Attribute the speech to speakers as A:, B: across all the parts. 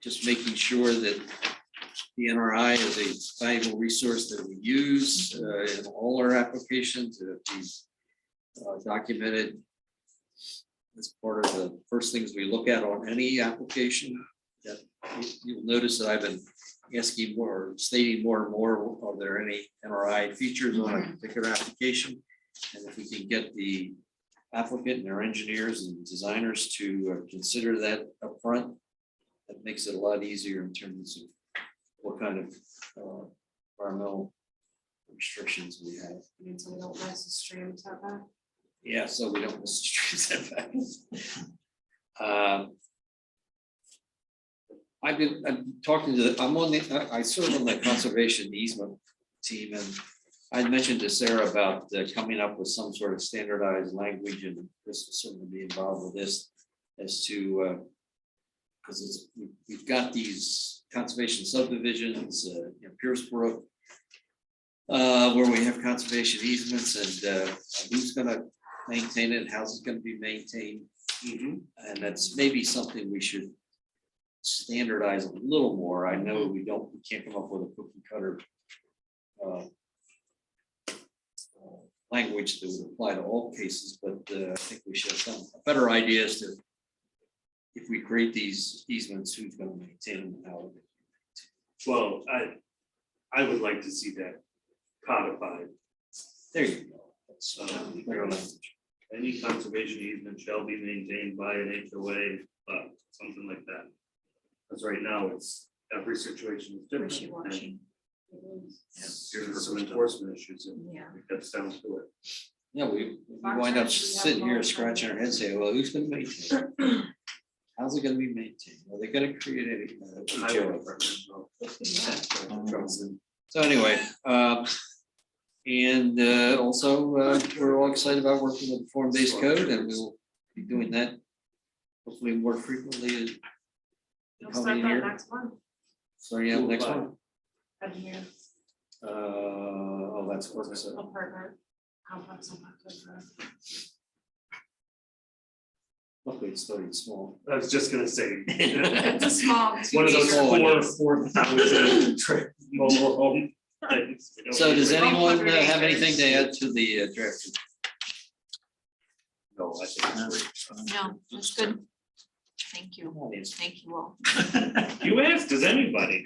A: just making sure that the NRI is a valuable resource that we use uh, in all our applications, that it be uh, documented as part of the first things we look at on any application. That you- You'll notice that I've been asking more, stating more and more, are there any NRI features on a particular application? And if we can get the applicant and their engineers and designers to uh, consider that upfront, that makes it a lot easier in terms of what kind of uh, environmental restrictions we have.
B: mean, so we don't lose the stream setback.
A: Yeah, so we don't miss the street setbacks. Um, I've been, I'm talking to, the I'm on the, I- I serve on the conservation easement team and I mentioned to Sarah about uh, coming up with some sort of standardized language and Chris will certainly be involved with this as to uh, because it's, we- we've got these conservation subdivisions, uh, you know, Pierce Brook, uh, where we have conservation easements and uh, who's gonna maintain it, how's it gonna be maintained? And that's maybe something we should standardize a little more. I know we don't, we can't come up with a cookie cutter uh, uh, language that would apply to all cases, but uh, I think we should have some better ideas to if we create these easements, who's gonna maintain them, and how?
C: Well, I, I would like to see that codified.
A: There you go. That's, uh,
C: Um,
A: better language.
C: Any conservation easement shall be maintained by an HOA, but uh, something like that. Because right now, it's, every situation is different.
B: Wishy-washy.
C: and There's some enforcement issues, and
B: Yeah.
C: that sounds to it.
A: Yeah, we we wind up sitting here scratching our heads, saying, well, who's gonna maintain? it? How's it gonna be maintained? Are they gonna create uh, a?
C: Highway department, no.
A: So anyway, um, and uh, also, uh, we're all excited about working with the form-based code and we'll be doing that hopefully more frequently in the
B: We'll start
A: coming
B: that
A: year,
B: next month.
A: starting out next
C: Cool.
A: one.
B: I've been
A: Uh, oh, that's what I said.
B: a partner. Complex and complex, uh,
A: Luckily, it's starting small.
C: I was just gonna say.
B: It's a small.
C: It's one of those
A: Small one.
C: four, four thousand trip mobile home. things. We don't
A: So does
C: need to-
A: anyone uh, have anything to add to the uh, draft?
C: No, I think it's great.
D: No, that's good. Thank you. Thank you all.
C: You asked, does anybody?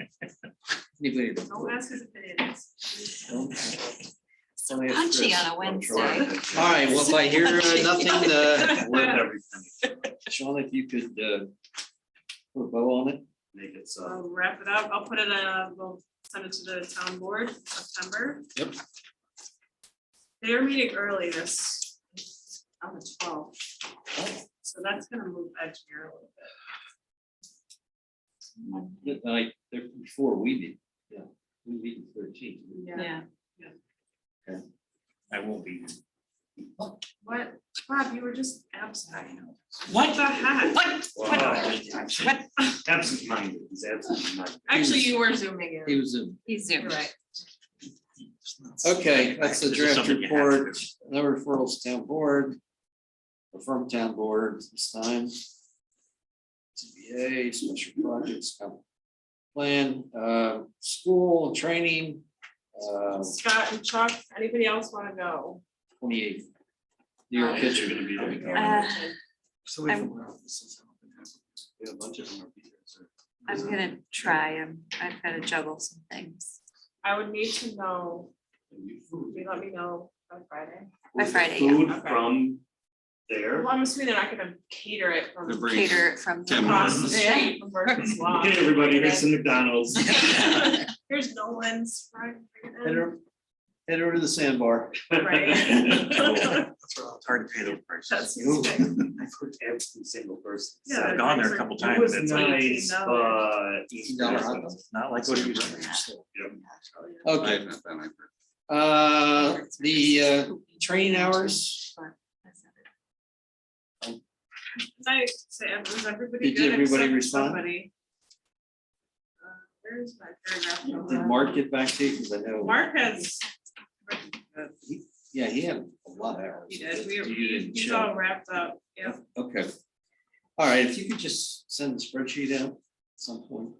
A: Anybody?
B: Don't ask us if it is.
D: So punchy on a Wednesday.
A: All right, well, if I hear uh, nothing, uh,
C: With everything,
A: Sean, if you could uh, put a bow on it.
C: make it uh, so.
B: I'll wrap it up. I'll put it, uh, we'll send it to the town board September.
A: Yep.
B: They're meeting early this, on the twelfth. So that's gonna move edge here a little bit.
A: Good night, there- before we meet, yeah, we meet the thirteenth.
D: Yeah.
C: I won't be.
B: What, Rob, you were just absent.
D: What?
B: What the heck?
D: What?
C: Wow.
D: What?
C: Absent-minded, he's absent-minded.
B: Actually, you were zooming
A: He
B: in.
A: was in.
D: He's
B: You're
D: zoomed.
B: right.
A: Okay, that's the
C: This is
A: draft
C: something you have to
A: report, no referrals to town board. or From town board this time. TBA, special projects, comp plan, uh, school, training, uh,
B: Scott and Chuck, anybody else wanna go?
A: twenty eighth. Your
B: Uh,
A: picture.
C: You're gonna be there.
D: Uh,
C: So
D: we I'm-
C: We have a bunch of them are be there, so.
D: I'm gonna try. um, I've got to juggle some things
B: I would need to know, you let me know by Friday.
D: by Friday, yeah.
C: Food
B: Okay.
C: from there.
B: Well, I'm assuming they're not gonna cater it from
E: They're bringing-
D: Cater it from.
E: Ten
B: across the
E: minutes.
B: street from Burton's Law.
C: Hey, everybody, here's some McDonald's.
B: Here's Nolan's. fried
A: Head
B: chicken.
A: over, head over to the sandbar.
B: Right.
E: It's hard to pay those prices.
B: That's his thing.
C: I've heard every single person.
B: Yeah,
C: say
E: I've gone there a couple
C: It
E: times.
C: was
E: It's like,
C: nice, but.
A: Eighteen dollar hot dog.
E: it's not like what you were.
A: Okay, uh, the uh, train hours,
B: Did I say, was everybody
A: Did
B: good
A: everybody
B: except for
A: respond?
B: somebody? Uh, Where's my paragraph? from
A: did
B: that?
A: Mark get back to you? Cause I know.
B: Mark has.
A: Yeah, he had a lot of hours.
B: He did, we,
A: You
B: we,
A: didn't
B: he's
A: show.
B: all wrapped up, yeah.
A: Okay. All right, if you could just send the spreadsheet out, some point.